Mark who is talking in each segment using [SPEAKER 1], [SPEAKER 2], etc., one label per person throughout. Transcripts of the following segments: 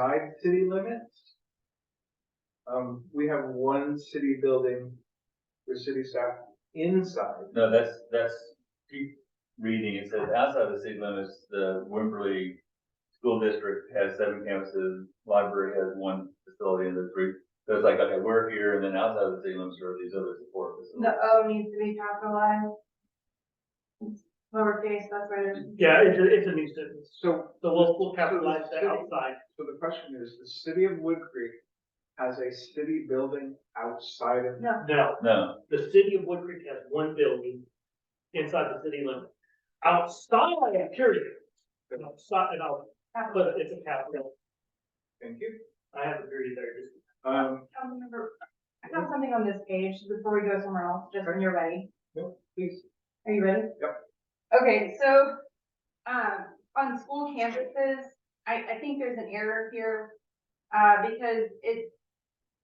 [SPEAKER 1] outside city limits. Um, we have one city building for city staff inside.
[SPEAKER 2] No, that's, that's, keep reading, it says outside the city limits, the Wimberley School District has seven campuses, library has one facility and the three. So it's like, okay, we're here and then outside of the city limits are these other support
[SPEAKER 3] The
[SPEAKER 2] facilities.
[SPEAKER 3] O needs to be capitalized. Lowercase, that's where. it-
[SPEAKER 4] Yeah, it's a, it's a nuisance.
[SPEAKER 1] So,
[SPEAKER 4] So we'll, we'll capitalize that outside.
[SPEAKER 1] so the question is, the city of Wood Creek has a city building outside of.
[SPEAKER 3] No,
[SPEAKER 4] No,
[SPEAKER 2] No,
[SPEAKER 4] the city of Wood Creek has one building inside the city limit. Outside, period. And outside, and I'll
[SPEAKER 3] capitalized.
[SPEAKER 4] put it, it's a capital.
[SPEAKER 1] Thank you.
[SPEAKER 4] I have a period there. just-
[SPEAKER 1] Um,
[SPEAKER 3] Councilmember, I have something on this page before we go somewhere else, just when you're ready.
[SPEAKER 1] please,
[SPEAKER 3] Are you ready?
[SPEAKER 1] Yep.
[SPEAKER 3] Okay, so, um, on school campuses, I, I think there's an error here, uh, because it,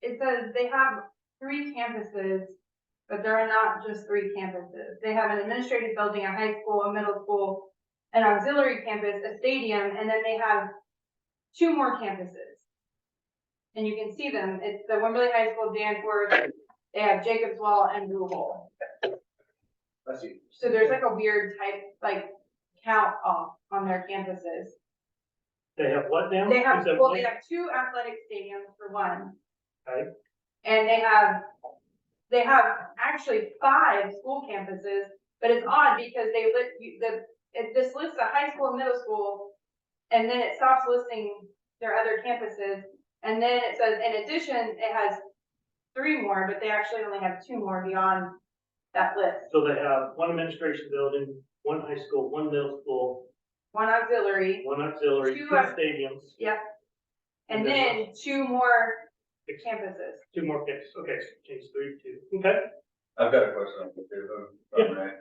[SPEAKER 3] it says they have three campuses, but there are not just three campuses. They have an administrative building, a high school, a middle school, an auxiliary campus, a stadium, and then they have two more campuses. And you can see them, it's the Wimberley High School, Danforth, they have Jacobs Well and Blue Hole.
[SPEAKER 1] let's see.
[SPEAKER 3] So there's like a weird type, like count off on their campuses.
[SPEAKER 4] They have what now?
[SPEAKER 3] They have,
[SPEAKER 4] Is that
[SPEAKER 3] well,
[SPEAKER 4] one?
[SPEAKER 3] they have two athletic stadiums for one.
[SPEAKER 4] Okay.
[SPEAKER 3] And they have, they have actually five school campuses, but it's odd because they lit, you- the, it, this lists a high school and middle school. And then it stops listing their other campuses. And then it says, in addition, it has three more, but they actually only have two more beyond that list.
[SPEAKER 4] So they have one administration building, one high school, one middle school,
[SPEAKER 3] One auxiliary.
[SPEAKER 4] one auxiliary,
[SPEAKER 3] Two
[SPEAKER 4] two
[SPEAKER 3] are-
[SPEAKER 4] stadiums,
[SPEAKER 3] Yep. And
[SPEAKER 4] And then-
[SPEAKER 3] then two more
[SPEAKER 4] Ex-
[SPEAKER 3] campuses.
[SPEAKER 4] two more campuses. Okay, so change three to two. Okay.
[SPEAKER 2] I've got a question on this, if I'm- if I'm right.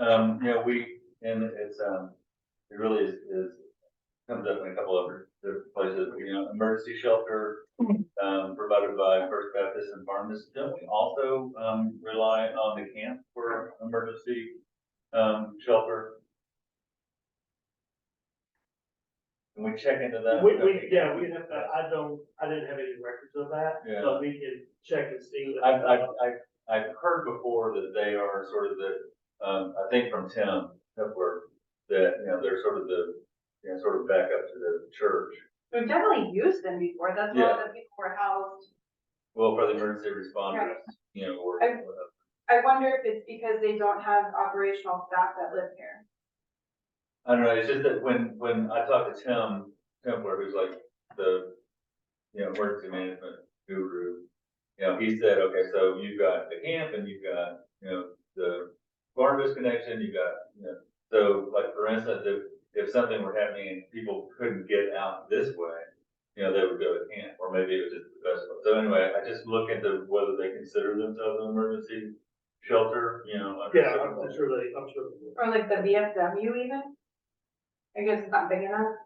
[SPEAKER 2] Um, you know, we, and it's, um, it really is, is, comes up in a couple of different places, you know, emergency shelter, um, provided by First Baptist and Barnes. Don't we also, um, rely on the camp for emergency, um, shelter? Can we check into that?
[SPEAKER 4] We, we, yeah, we have, that. I don't, I didn't have any records of that,
[SPEAKER 2] Yeah.
[SPEAKER 4] but we can check and see.
[SPEAKER 2] I've, I've, I've, I've heard before that they are sort of the, um, I think from Tim Hepler, that, you know, they're sort of the, you know, sort of back up to the church.
[SPEAKER 3] We've definitely used them before. That's where all the people were housed.
[SPEAKER 2] Well, for the emergency responders, you know, or,
[SPEAKER 3] I- I wonder if it's because they don't have operational staff that live here.
[SPEAKER 2] I don't know, it's just that when, when I talked to Tim Hepler, who's like the, you know, emergency management guru, you know, he said, okay, so you've got the camp and you've got, you know, the Barnabas connection, you've got, you know, so like, for instance, if, if something were happening and people couldn't get out this way, you know, they would go to camp, or maybe it was just the festival. So anyway, I just look into whether they consider themselves an emergency shelter, you know. under
[SPEAKER 4] Yeah, I'm
[SPEAKER 2] certain-
[SPEAKER 4] I'm sure they, I'm sure. they will.
[SPEAKER 3] Or like the VFW even. I guess it's not big enough.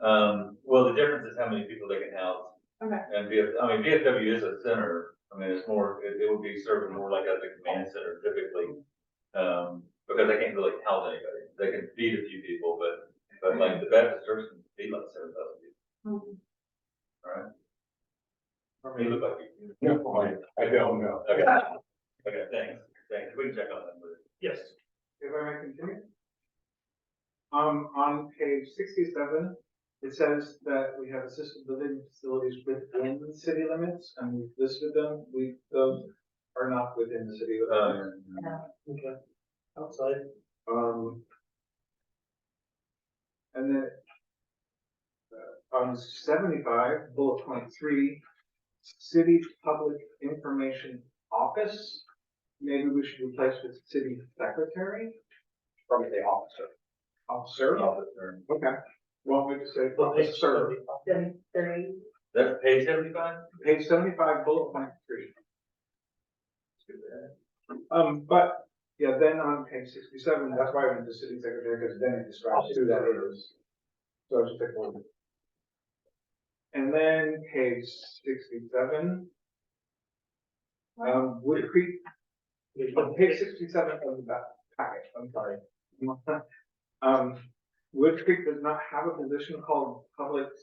[SPEAKER 2] Um, well, the difference is how many people they can house.
[SPEAKER 3] Okay.
[SPEAKER 2] And VF, I mean, VFW is a center, I mean, it's more, it, it would be serving more like as a command center typically. Um, because they can't really house anybody, they can feed a few people, but, but like the Baptist church can feed like seven thousand people,
[SPEAKER 4] Hmm.
[SPEAKER 2] alright? Or maybe look like you.
[SPEAKER 5] No, I, I don't know.
[SPEAKER 2] Okay, okay, thanks, thanks, we can check on that later.
[SPEAKER 4] Yes,
[SPEAKER 1] If I may continue? Um, on page sixty-seven, it says that we have assisted living facilities within the city limits, and we've listed them, we, those are not within the city limits.
[SPEAKER 2] Um,
[SPEAKER 4] okay. Outside,
[SPEAKER 1] Um. And then. uh, On seventy-five, bullet point three, city public information office, maybe we should replace with city secretary?
[SPEAKER 5] Probably the officer.
[SPEAKER 1] Officer?
[SPEAKER 2] officer.
[SPEAKER 1] Okay, well, we just say
[SPEAKER 4] well, they
[SPEAKER 1] officer,
[SPEAKER 2] That's page seventy-five?
[SPEAKER 1] page seventy-five, bullet point three. Um, but, yeah, then on page sixty-seven, that's why I went to city secretary, because then it describes who that is. So I just pick one. And then page sixty-seven. Um, Wood Creek,
[SPEAKER 4] we-
[SPEAKER 1] oh, page sixty-seven of the back packet, I'm sorry. Um, Wood Creek does not have a position called public